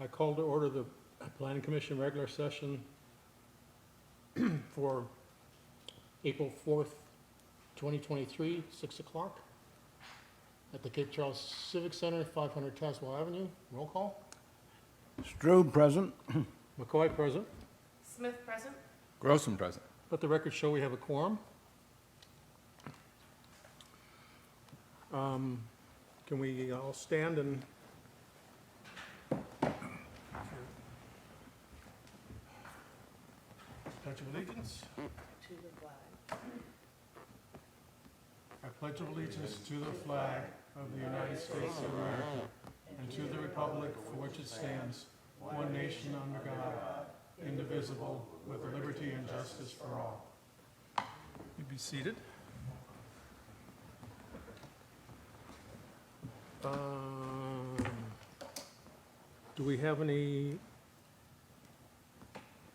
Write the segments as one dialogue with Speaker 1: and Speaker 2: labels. Speaker 1: I call to order the Planning Commission regular session for April 4th, 2023, 6 o'clock at the Cape Charles Civic Center, 500 Caswell Avenue. Roll call.
Speaker 2: Strube, present.
Speaker 1: McCoy present.
Speaker 3: Smith present?
Speaker 4: Grossman present.
Speaker 1: Let the record show we have a quorum. Um, Can we all stand and? Pledge of allegiance.
Speaker 3: To the flag.
Speaker 1: I pledge allegiance to the flag of the United States of America and to the republic for which it stands, one nation under God, indivisible, with liberty and justice for all. You'd be seated. Um, Do we have any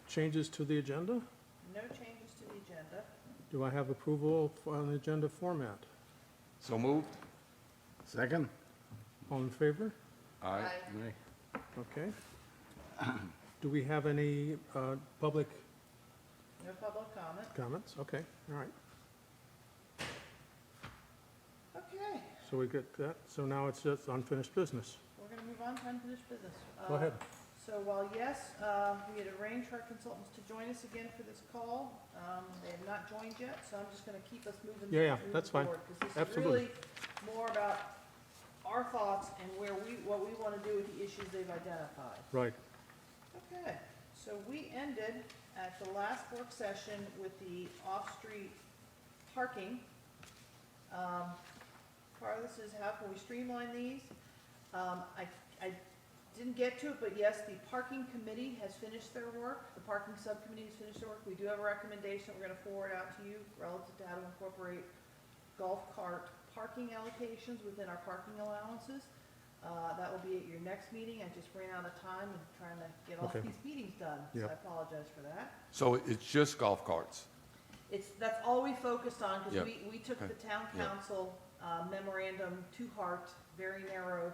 Speaker 1: changes to the agenda?
Speaker 3: No changes to the agenda.
Speaker 1: Do I have approval on the agenda format?
Speaker 4: So moved.
Speaker 2: Second.
Speaker 1: All in favor?
Speaker 4: Aye.
Speaker 1: Okay. Do we have any uh, public
Speaker 3: No public comment.
Speaker 1: comments? Okay, all right.
Speaker 3: Okay,
Speaker 1: So we get that. So now it's just unfinished business.
Speaker 3: we're gonna move on to unfinished business.
Speaker 1: Go
Speaker 3: Uh,
Speaker 1: ahead.
Speaker 3: So while yes, uh, we had arranged for our consultants to join us again for this call, um, they have not joined yet, so I'm just gonna keep us moving.
Speaker 1: Yeah, yeah,
Speaker 3: moving
Speaker 1: that's fine.
Speaker 3: forward, 'cause this is
Speaker 1: Absolutely.
Speaker 3: really More about our thoughts and where we, what we wanna do with the issues they've identified.
Speaker 1: Right.
Speaker 3: Okay, so we ended at the last work session with the off-street parking. Um, Part of this is how can we streamline these? Um, I, I didn't get to it, but yes, the parking committee has finished their work. The parking subcommittee has finished their work. We do have a recommendation we're gonna forward out to you relative to how to incorporate golf cart parking allocations within our parking allowances. Uh, that will be at your next meeting. I just ran out of time and trying to get all
Speaker 1: Okay.
Speaker 3: these meetings done, so
Speaker 1: Yeah.
Speaker 3: I apologize for that.
Speaker 4: So it's just golf carts.
Speaker 3: It's, that's all we focused on,
Speaker 4: Yeah.
Speaker 3: because we, we took the town
Speaker 4: Yeah.
Speaker 3: council uh, memorandum to heart, very narrow,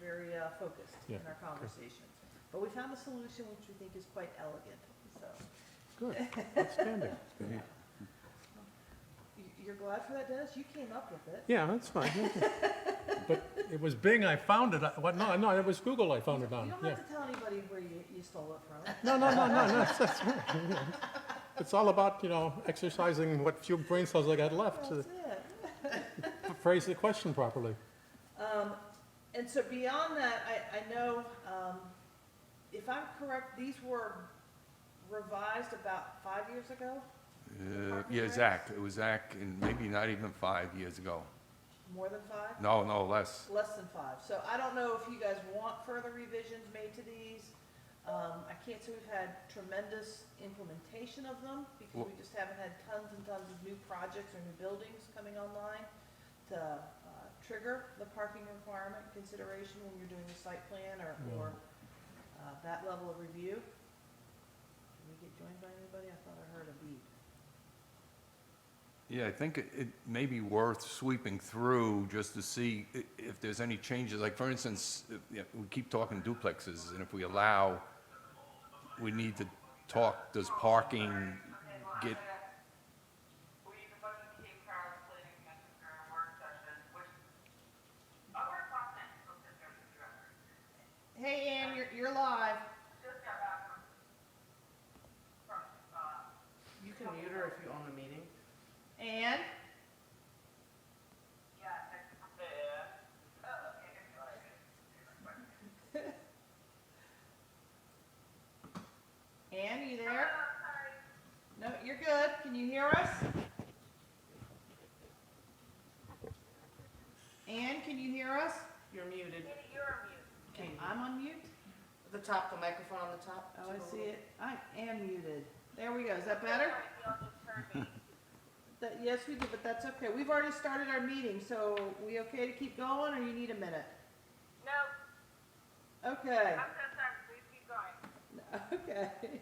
Speaker 3: very uh, focused in
Speaker 1: Yeah.
Speaker 3: our conversations. But we found a solution which we think is quite elegant, so.
Speaker 1: Good. Outstanding.
Speaker 3: You- You're glad for that, Dennis? You came up with it.
Speaker 1: Yeah, that's fine. But it was Bing I found it. I- What, no, no, it was Google I found it
Speaker 3: You
Speaker 1: on.
Speaker 3: don't
Speaker 1: Yeah.
Speaker 3: have to tell anybody where you, you stole it from.
Speaker 1: No, no, no, no, no. That's- that's right. It's all about, you know, exercising what few brain cells I got left to
Speaker 3: That's it.
Speaker 1: phrase the question properly.
Speaker 3: Um, and so beyond that, I, I know, um, if I'm correct, these were revised about five years ago?
Speaker 4: Uh, Yeah, Zach, it was Zach, and maybe not even five years ago.
Speaker 3: More than five?
Speaker 4: No, no, less.
Speaker 3: Less than five. So I don't know if you guys want further revisions made to these. Um, I can't say we've had tremendous implementation of them because we just haven't had tons and tons of new projects or new buildings coming online to, uh, trigger the parking requirement consideration when you're doing the site plan or, or, uh, that level of review. Did we get joined by anybody? I thought I heard a beep.
Speaker 4: Yeah, I think it it may be worth sweeping through just to see i- if there's any changes. Like, for instance, if- yeah, we keep talking duplexes, and if we allow, we need to talk, does parking get,
Speaker 5: We proposed the Cape Cod Planning Commission during a work session, which, a work session, so that there's a director.
Speaker 3: Hey, Ann, you're, you're live.
Speaker 5: Just got back from, from, uh,
Speaker 3: You can mute her if you own the meeting. Ann?
Speaker 5: yeah, next, yeah. Oh, okay, I feel like it.
Speaker 3: Ann, are you there? No, you're good. Can you hear us? Ann, can you hear us?
Speaker 6: You're muted.
Speaker 5: Katie, you're on mute.
Speaker 3: Okay, I'm on mute.
Speaker 6: At the top, the microphone on the top.
Speaker 3: Oh,
Speaker 6: Took a
Speaker 3: I see
Speaker 6: little-
Speaker 3: it. I am muted. There we go. Is that better?
Speaker 5: Sorry, you all just heard me.
Speaker 3: That, yes, we did, but that's okay. We've already started our meeting, so we okay to keep going or you need a minute?
Speaker 5: No,
Speaker 3: Okay,
Speaker 5: I'm so sorry, please keep going.
Speaker 3: okay.